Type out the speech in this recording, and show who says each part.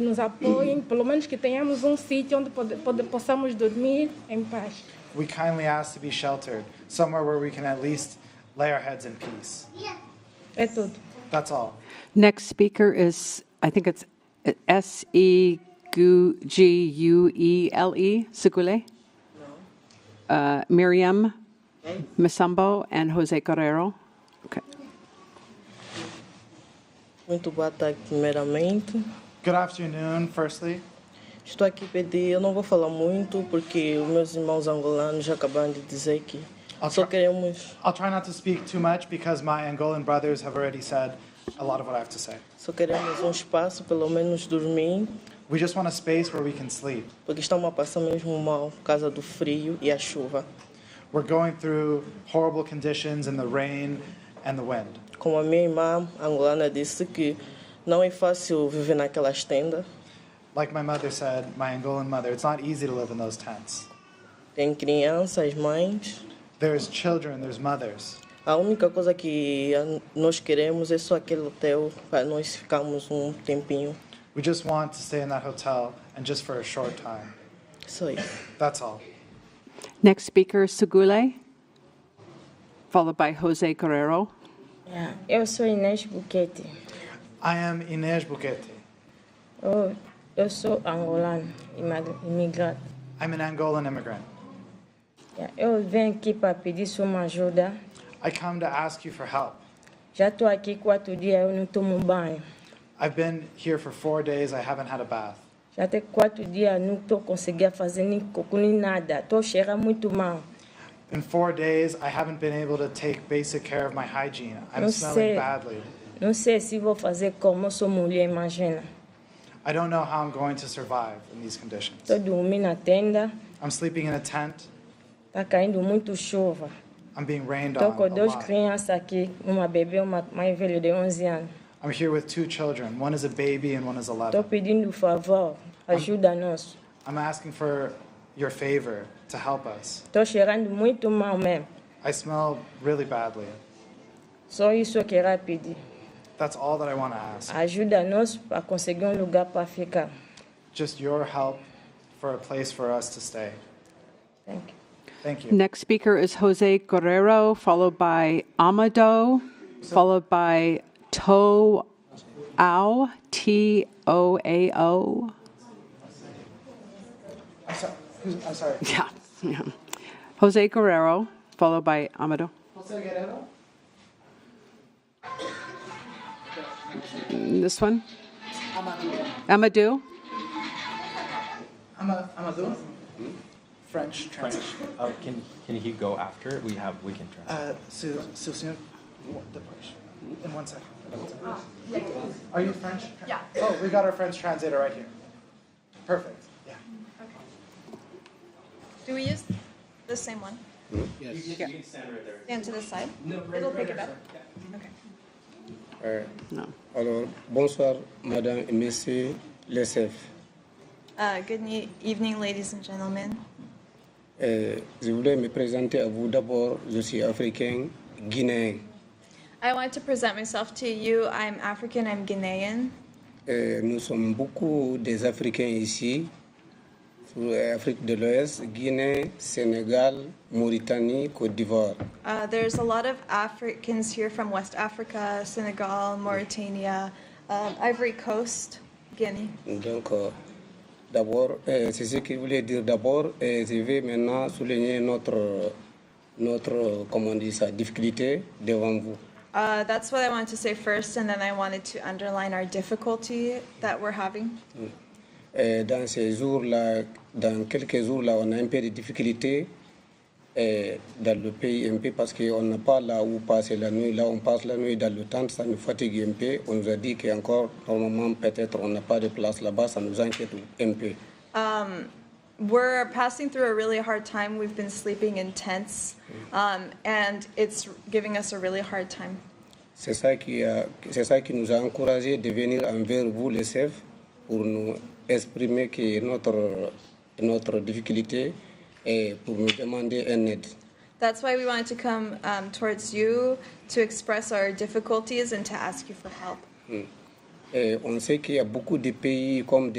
Speaker 1: nos apoiem, pelo menos que tenhamos um sítio onde pode, pode, possamos dormir em paz.
Speaker 2: We kindly ask to be sheltered, somewhere where we can at least lay our heads in peace.
Speaker 1: É tudo.
Speaker 2: That's all.
Speaker 3: Next speaker is, I think it's uh, S E G U E L E, Segule. Uh, Miriam Misambo and Jose Guerrero. Okay.
Speaker 4: Muito boa tarde, primeiramente.
Speaker 2: Good afternoon, firstly.
Speaker 4: Estou aqui pedir, eu não vou falar muito, porque os meus irmãos angolanos já acabaram de dizer que
Speaker 2: I'll
Speaker 4: só
Speaker 2: try-
Speaker 4: queremos,
Speaker 2: I'll try not to speak too much because my Angolan brothers have already said a lot of what I have to say.
Speaker 4: só queremos um espaço, pelo menos dormir,
Speaker 2: We just want a space where we can sleep.
Speaker 4: porque estamos a passar mesmo mal por causa do frio e a chuva.
Speaker 2: We're going through horrible conditions in the rain and the wind.
Speaker 4: Como a minha irmã angolana disse que não é fácil viver naquelas tendas,
Speaker 2: Like my mother said, my Angolan mother, it's not easy to live in those tents.
Speaker 4: tem crianças, mães.
Speaker 2: There's children, there's mothers.
Speaker 4: A única coisa que a- nós queremos é só aquele hotel para nós ficarmos um tempinho.
Speaker 2: We just want to stay in that hotel and just for a short time.
Speaker 4: Só isso.
Speaker 2: That's all.
Speaker 3: Next speaker is Segule, followed by Jose Guerrero.
Speaker 5: Yeah, É. Eu sou Inês Buquete.
Speaker 2: I am Inez Bukete.
Speaker 5: Eu, eu sou angolano, ima- imigrante.
Speaker 2: I'm an Angolan immigrant.
Speaker 5: Yeah, Eu venho aqui para pedir sua uma ajuda.
Speaker 2: I come to ask you for help.
Speaker 5: Já estou aqui quatro dias, eu não tomo banho.
Speaker 2: I've been here for four days, I haven't had a bath.
Speaker 5: Já tem quatro dias, não estou conseguindo fazer nem cocô nem nada. Estou cheirando muito mal.
Speaker 2: In four days, I haven't been able to take basic care of my hygiene. I'm
Speaker 5: Eu
Speaker 2: smelling
Speaker 5: sei.
Speaker 2: badly.
Speaker 5: Não sei se vou fazer como, eu sou mulher, imagina.
Speaker 2: I don't know how I'm going to survive in these conditions.
Speaker 5: Estou dormindo na tenda,
Speaker 2: I'm sleeping in a tent.
Speaker 5: está caindo muito chuva.
Speaker 2: I'm being rained
Speaker 5: Estou
Speaker 2: on.
Speaker 5: com
Speaker 2: A
Speaker 5: duas
Speaker 2: lot.
Speaker 5: crianças aqui, uma bebê e uma mais velha de 11 anos.
Speaker 2: I'm here with two children. One is a baby and one is
Speaker 5: Estou
Speaker 2: 11.
Speaker 5: pedindo favor, ajuda-nos.
Speaker 2: I'm asking for your favor to help us.
Speaker 5: Estou cheirando muito mal mesmo.
Speaker 2: I smell really badly.
Speaker 5: Só isso eu queria pedir.
Speaker 2: That's all that I want to ask.
Speaker 5: Ajuda-nos a conseguir um lugar para ficar.
Speaker 2: Just your help for a place for us to stay.
Speaker 5: Thank you.
Speaker 2: Thank you.
Speaker 3: Next speaker is Jose Guerrero, followed by Amado, followed by To Ao, T O A O.
Speaker 2: I'm, so- who's- I'm sorry.
Speaker 3: Yeah. yeah. Jose Guerrero, followed by Amado. This one? Amadou.
Speaker 2: French translation.
Speaker 6: Uh, can can he go after? We have we can try.
Speaker 2: Uh, so, so soon? What- the push. In one second. Are you French? Yeah. Oh, we got our French translator right here. Perfect. Yeah.
Speaker 7: Do we use the same one? Yes. You can stand right there. Stand to this side? It'll pick it up.
Speaker 8: Euh,
Speaker 3: No.
Speaker 8: alors, bonsoir, madame et messieurs les chefs.
Speaker 7: Uh, good ne- evening, ladies and gentlemen.
Speaker 8: Euh, je voulais me présenter à vous d'abord. Je suis africain, guinéen.
Speaker 7: I want to present myself to you. I'm African, I'm Guinean.
Speaker 8: Euh, nous sommes beaucoup des Africains ici, sur Afrique de l'Ouest, Guinée, Sénégal, Mauritanie, Côte d'Ivoire.
Speaker 7: Uh, there's a lot of Africans here from West Africa, Senegal, Mauritania, um, Ivory Coast, Guinea.
Speaker 8: Donc, euh, d'abord, euh, c'est ce que je voulais dire d'abord. Et je vais maintenant souligner notre, notre, euh, comment on dit ça, difficulté devant vous.
Speaker 7: Uh, that's what I wanted to say first, and then I wanted to underline our difficulty that we're having.
Speaker 8: Euh, dans ces jours-là, dans quelques jours-là, on a un peu de difficultés euh, dans le pays un peu parce qu'on n'a pas là où passer la nuit. Là, on passe la nuit dans le tente, ça nous fatigue un peu. On nous a dit qu'encore, normalement, peut-être on n'a pas de place là-bas, ça nous inquiète un peu.
Speaker 7: We're passing through a really hard time. We've been sleeping in tents, um, and it's giving us a really hard time.
Speaker 8: C'est ça, qui a- c'est ça qui nous a encouragés de venir envers vous, les chefs, pour nous exprimer que notre, notre difficulté et pour nous demander un aide.
Speaker 7: That's why we wanted to come um, towards you to express our difficulties and to ask you for help.
Speaker 8: Et on sait qu'il y a beaucoup de pays comme des